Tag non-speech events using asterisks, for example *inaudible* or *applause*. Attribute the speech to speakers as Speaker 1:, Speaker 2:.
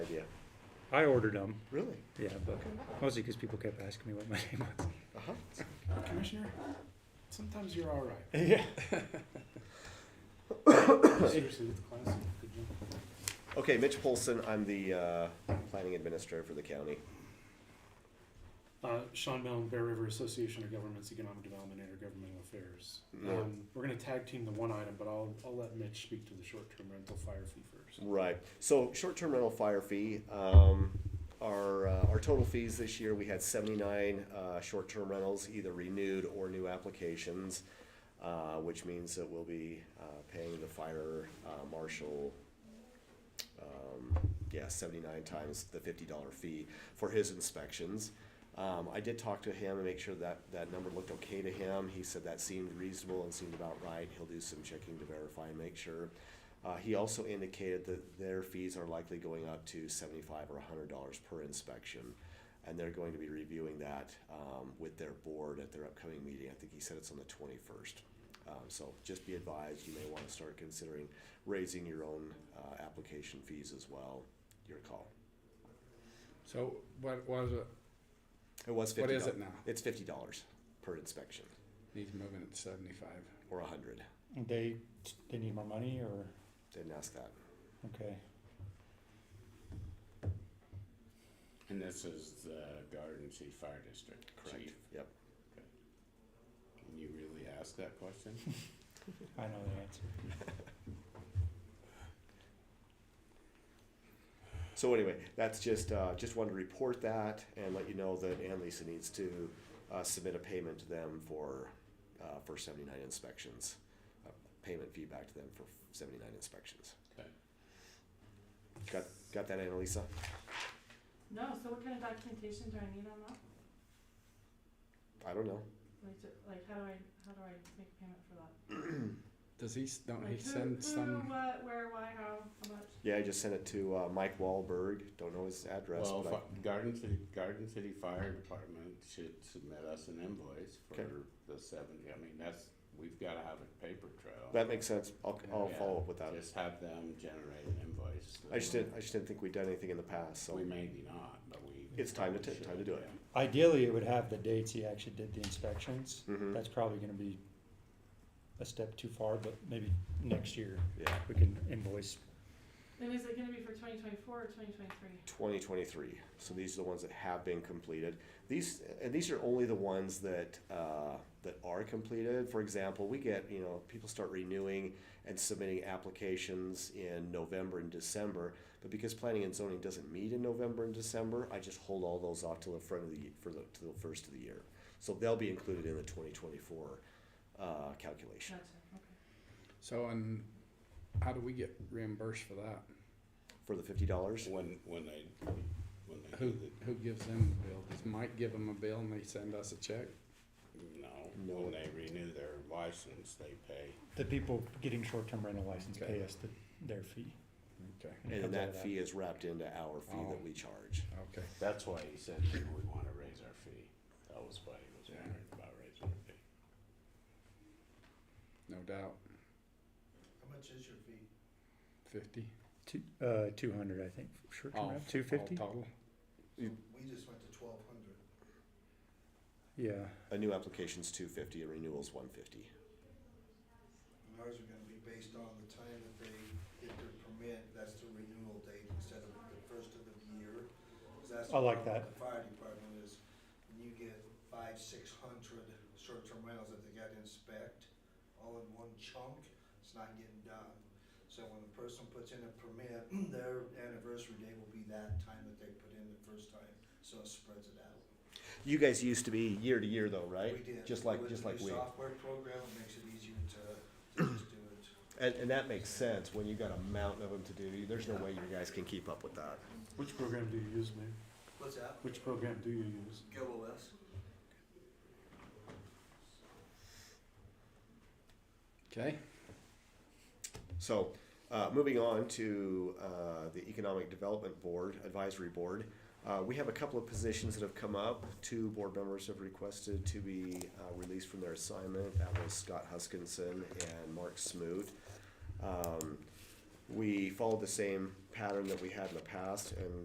Speaker 1: I ordered them,
Speaker 2: Really?
Speaker 1: yeah, but mostly because people kept asking me what my *laughs* name was.
Speaker 2: Uh-huh.
Speaker 3: Commissioner, sometimes you're all right.
Speaker 2: Yeah.
Speaker 3: *coughs* Seriously, that's classic. Good job.
Speaker 2: Okay, Mitch Polson, I'm the uh, planning administrator for the county.
Speaker 3: Uh, Sean Mellon, Bear River Association of Governments, Economic Development, Intergovernmental Affairs.
Speaker 2: No.
Speaker 3: Um, we're gonna tag team the one item, but I'll, I'll let Mitch speak to the short-term rental fire fee first.
Speaker 2: Right. So short-term rental fire fee, um, our, uh, our total fees this year, we had seventy-nine, uh, short-term rentals, either renewed or new applications, uh, which means that we'll be, uh, paying the fire, uh, marshal, um, yeah, seventy-nine times the fifty-dollar fee for his inspections. Um, I did talk to him and make sure that, that number looked okay to him. He said that seemed reasonable and seemed about right. He'll do some checking to verify and make sure. Uh, he also indicated that their fees are likely going up to seventy-five or hundred dollars per inspection. And they're going to be reviewing that, um, with their board at their upcoming meeting. I think he said it's on the twenty-first. Um, so just be advised, you may wanna start considering raising your own, uh, application fees as well. Your call.
Speaker 4: So what was it?
Speaker 2: It was
Speaker 4: What
Speaker 2: fifty
Speaker 4: is
Speaker 2: dollars.
Speaker 4: it now?
Speaker 2: It's fifty dollars per inspection,
Speaker 4: He's moving at seventy-five.
Speaker 2: or a hundred.
Speaker 5: They, they need more money or,
Speaker 2: Didn't ask that.
Speaker 5: okay,
Speaker 6: And this is the Garden City Fire District
Speaker 2: Correct.
Speaker 6: chief.
Speaker 2: Yep.
Speaker 6: Can you really ask that question?
Speaker 5: I know the answer.
Speaker 2: So anyway, that's just, uh, just wanted to report that and let you know that Ann Lisa needs to, uh, submit a payment to them for, uh, for seventy-nine inspections. A Payment feedback to them for seventy-nine inspections.
Speaker 6: Okay.
Speaker 2: Got, got that, Ann Lisa?
Speaker 7: *laughs* No, so what kind of documentation do I need on that?
Speaker 2: I don't know.
Speaker 7: Like, do- like how do I, how do I make payment for that?
Speaker 4: Does he, s- don't he
Speaker 7: Like
Speaker 4: send
Speaker 7: Who, who,
Speaker 4: some,
Speaker 7: what, where, why, how, how much?
Speaker 2: Yeah, I just sent it to, uh, Mike Wahlberg. Don't know his address,
Speaker 6: Well,
Speaker 2: but I,
Speaker 6: fi- Garden City, Garden City Fire Department should submit us an invoice
Speaker 2: Okay.
Speaker 6: for the seventy, I mean, that's, we've gotta have a paper trail.
Speaker 2: that makes sense. I'll, I'll
Speaker 6: Yeah.
Speaker 2: follow up with that.
Speaker 6: Just have them generate an invoice.
Speaker 2: I just didn't, I just didn't think we'd done anything in the past, so.
Speaker 6: We maybe not, but we.
Speaker 2: It's time to ta-
Speaker 6: should,
Speaker 2: time to do it.
Speaker 6: yeah.
Speaker 5: Ideally, it would have the dates he actually did the inspections.
Speaker 2: Mhm.
Speaker 5: That's probably gonna be a step too far, but maybe next year
Speaker 2: Yeah,
Speaker 5: we can invoice.
Speaker 7: And is it gonna be for twenty twenty-four or twenty twenty-three?
Speaker 2: twenty twenty-three. So these are the ones that have been completed. These, and these are only the ones that, uh, that are completed. For example, we get, you know, people start renewing and submitting applications in November and December. But because planning and zoning doesn't meet in November and December, I just hold all those off till the front of the, for the, to the first of the year. So they'll be included in the twenty twenty-four, uh, calculation.
Speaker 7: Gotcha, okay.
Speaker 4: so and how do we get reimbursed for that?
Speaker 2: For the fifty dollars,
Speaker 6: When, when they, when they
Speaker 4: Who,
Speaker 6: do the
Speaker 4: who gives them the bill? Does Mike give them a bill and they send us a check?
Speaker 6: No,
Speaker 2: No.
Speaker 6: when they renew their license, they pay.
Speaker 5: The people getting short-term rental license pay
Speaker 4: Okay.
Speaker 5: us the, their fee.
Speaker 4: Okay,
Speaker 2: and then
Speaker 5: comes out of
Speaker 2: that fee is wrapped into our fee that we charge.
Speaker 4: okay.
Speaker 6: That's why he said, do we wanna raise our fee? That was why he was wondering about raising our fee.
Speaker 4: No doubt,
Speaker 3: How much is your fee?
Speaker 4: fifty?
Speaker 1: Two, uh, two hundred, I think, sure,
Speaker 4: All-
Speaker 1: two
Speaker 4: all
Speaker 1: fifty?
Speaker 4: Total,
Speaker 3: We just went to twelve hundred.
Speaker 1: Yeah,
Speaker 2: A new application's two fifty, a renewal's one fifty.
Speaker 8: And ours are gonna be based on the time that they get their permit, that's the renewal date instead of the first of the year. 'Cause that's the
Speaker 5: I like
Speaker 8: problem
Speaker 5: that.
Speaker 8: with The fire department is, when you get five, six hundred short-term rentals that they gotta inspect, all in one chunk, it's not getting done. So when the person puts in a permit, *clears throat* their anniversary date will be that time that they put in the first time, so it spreads it out.
Speaker 2: You guys used to be year to year though, right?
Speaker 8: We did.
Speaker 2: Just like,
Speaker 8: With
Speaker 2: just
Speaker 8: the
Speaker 2: like
Speaker 8: new
Speaker 2: we.
Speaker 8: Software program, it makes it easier to, to just do it.
Speaker 2: And, and that makes sense, when you got a mountain of them to do, there's no way you guys can keep up with that.
Speaker 3: Which program do you use, Mayor?
Speaker 8: What's that?
Speaker 3: Which program do you use?
Speaker 8: Go OS.
Speaker 4: okay?
Speaker 2: So, uh, moving on to, uh, the Economic Development Board, Advisory Board. Uh, we have a couple of positions that have come up, two board members have requested to be, uh, released from their assignment, that was Scott Huskinson and Mark Smoot. Um, we followed the same pattern that we had in the past and